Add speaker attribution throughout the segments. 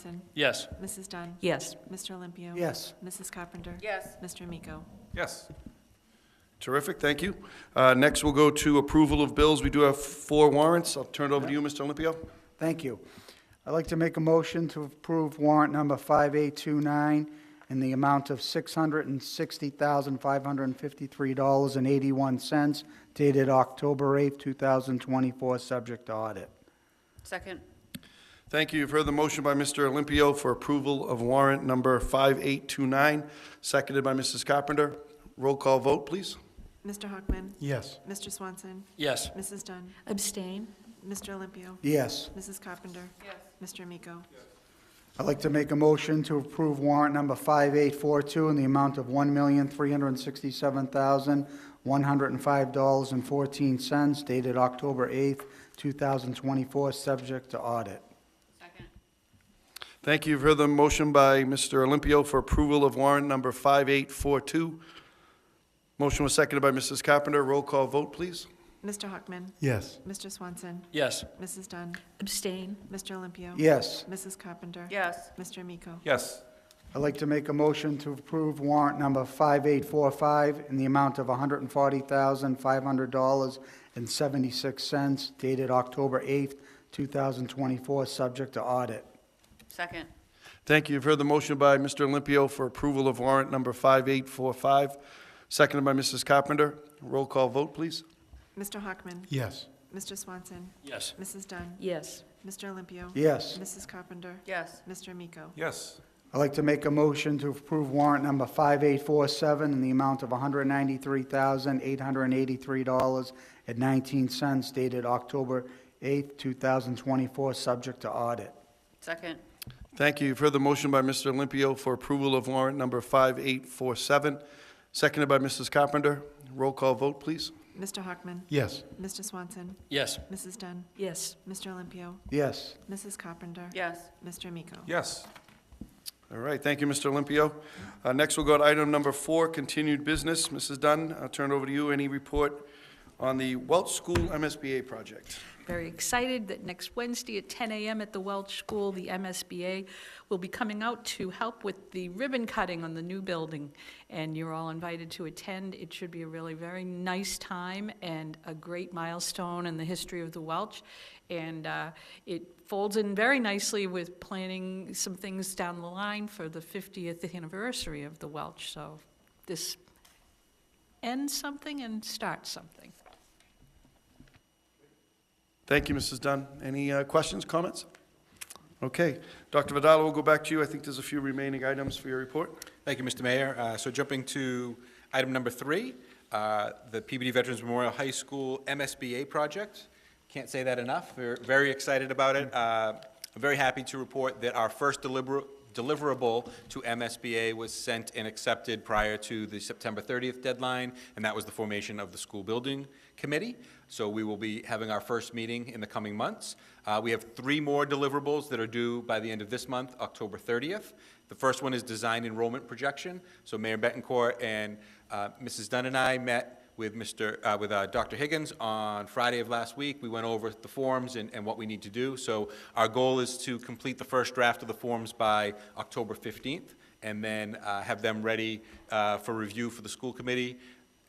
Speaker 1: Johnson.
Speaker 2: Yes.
Speaker 1: Mrs. Dunn.
Speaker 3: Yes.
Speaker 1: Mr. Olympio.
Speaker 4: Yes.
Speaker 1: Mrs. Carpenter.
Speaker 3: Yes.
Speaker 1: Mr. Amico.
Speaker 2: Yes. Terrific, thank you. Uh, Next, we'll go to approval of bills. We do have four warrants. I'll turn it over to you, Mr. Olympio.
Speaker 4: Thank you. I'd like to make a motion to approve warrant number 5829 in the amount of $660,553.81 dated October 8, 2024, subject to audit.
Speaker 3: Second.
Speaker 2: Thank you. You've heard the motion by Mr. Olympio for approval of warrant number 5829, seconded by Mrs. Carpenter. Roll call vote, please.
Speaker 1: Mr. Hockman.
Speaker 4: Yes.
Speaker 1: Mr. Swanson.
Speaker 2: Yes.
Speaker 1: Mrs. Dunn.
Speaker 3: Abstain.
Speaker 1: Mr. Olympio.
Speaker 4: Yes.
Speaker 1: Mrs. Carpenter.
Speaker 3: Yes.
Speaker 1: Mr. Amico.
Speaker 4: I'd like to make a motion to approve warrant number 5842 in the amount of $1,367,105.14 dated October 8, 2024, subject to audit.
Speaker 3: Second.
Speaker 2: Thank you. You've heard the motion by Mr. Olympio for approval of warrant number 5842. Motion was seconded by Mrs. Carpenter. Roll call vote, please.
Speaker 1: Mr. Hockman.
Speaker 4: Yes.
Speaker 1: Mr. Swanson.
Speaker 2: Yes.
Speaker 1: Mrs. Dunn.
Speaker 3: Abstain.
Speaker 1: Mr. Olympio.
Speaker 4: Yes.
Speaker 1: Mrs. Carpenter.
Speaker 3: Yes.
Speaker 1: Mr. Amico.
Speaker 2: Yes.
Speaker 4: I'd like to make a motion to approve warrant number 5845 in the amount of $140,500.76 dated October 8, 2024, subject to audit.
Speaker 3: Second.
Speaker 2: Thank you. You've heard the motion by Mr. Olympio for approval of warrant number 5845, seconded by Mrs. Carpenter. Roll call vote, please.
Speaker 1: Mr. Hockman.
Speaker 4: Yes.
Speaker 1: Mr. Swanson.
Speaker 2: Yes.
Speaker 1: Mrs. Dunn.
Speaker 3: Yes.
Speaker 1: Mr. Olympio.
Speaker 4: Yes.
Speaker 1: Mrs. Carpenter.
Speaker 3: Yes.
Speaker 1: Mr. Amico.
Speaker 2: Yes.
Speaker 4: I'd like to make a motion to approve warrant number 5847 in the amount of $193,883.19 dated October 8, 2024, subject to audit.
Speaker 3: Second.
Speaker 2: Thank you. You've heard the motion by Mr. Olympio for approval of warrant number 5847, seconded by Mrs. Carpenter. Roll call vote, please.
Speaker 1: Mr. Hockman.
Speaker 4: Yes.
Speaker 1: Mr. Swanson.
Speaker 2: Yes.
Speaker 1: Mrs. Dunn.
Speaker 3: Yes.
Speaker 1: Mr. Olympio.
Speaker 4: Yes.
Speaker 1: Mrs. Carpenter.
Speaker 3: Yes.
Speaker 1: Mr. Amico.
Speaker 2: Yes. All right, thank you, Mr. Olympio. Uh, Next, we'll go to item number four, continued business. Mrs. Dunn, I'll turn it over to you. Any report on the Welch School MSBA project?
Speaker 5: Very excited that next Wednesday at 10 a.m. at the Welch School, the MSBA will be coming out to help with the ribbon cutting on the new building, and you're all invited to attend. It should be a really very nice time and a great milestone in the history of the Welch, and uh, it folds in very nicely with planning some things down the line for the 50th anniversary of the Welch, so this ends something and starts something.
Speaker 2: Thank you, Mrs. Dunn. Any uh, questions, comments? Okay. Dr. Vidal, we'll go back to you. I think there's a few remaining items for your report.
Speaker 6: Thank you, Mr. Mayor. Uh, So jumping to item number three, uh, the PBD Veterans Memorial High School MSBA project. Can't say that enough. We're very excited about it. Uh, I'm very happy to report that our first deliver- deliverable to MSBA was sent and accepted prior to the September 30th deadline, and that was the formation of the school building committee. So we will be having our first meeting in the coming months. Uh, We have three more deliverables that are due by the end of this month, October 30th. The first one is design enrollment projection. So Mayor Betancourt and uh, Mrs. Dunn and I met with Mr., uh, with uh, Dr. Higgins on Friday of last week. We went over the forms and, and what we need to do. So our goal is to complete the first draft of the forms by October 15th, and then uh, have them ready uh, for review for the school committee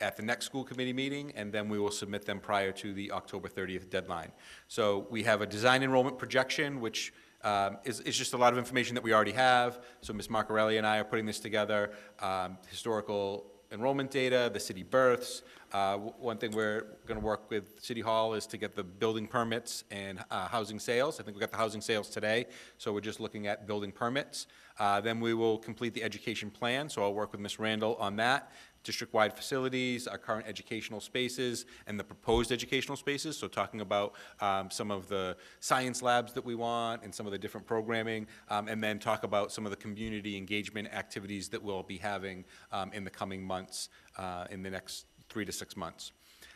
Speaker 6: at the next school committee meeting, and then we will submit them prior to the October 30th deadline. So we have a design enrollment projection, which um, is, is just a lot of information that we already have. So Ms. Marcarelli and I are putting this together, um, historical enrollment data, the city births. Uh, w- One thing we're going to work with City Hall is to get the building permits and uh, housing sales. I think we got the housing sales today, so we're just looking at building permits. Uh, Then we will complete the education plan, so I'll work with Ms. Randall on that. District-wide facilities, our current educational spaces, and the proposed educational spaces. So talking about um, some of the science labs that we want and some of the different programming, um, and then talk about some of the community engagement activities that we'll be having um, in the coming months, uh, in the next three to six months.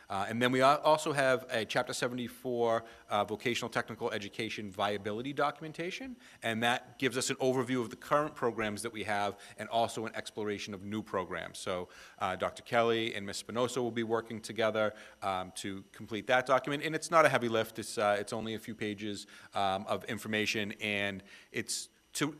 Speaker 6: Uh, And then we al- also have a Chapter 74 uh, Vocational Technical Education Viability Documentation, and that gives us an overview of the current programs that we have and also an exploration of new programs. So uh, Dr. Kelly and Ms. Spinoza will be working together um, to complete that document, and it's not a heavy lift. It's, uh, it's only a few pages um, of information, and it's,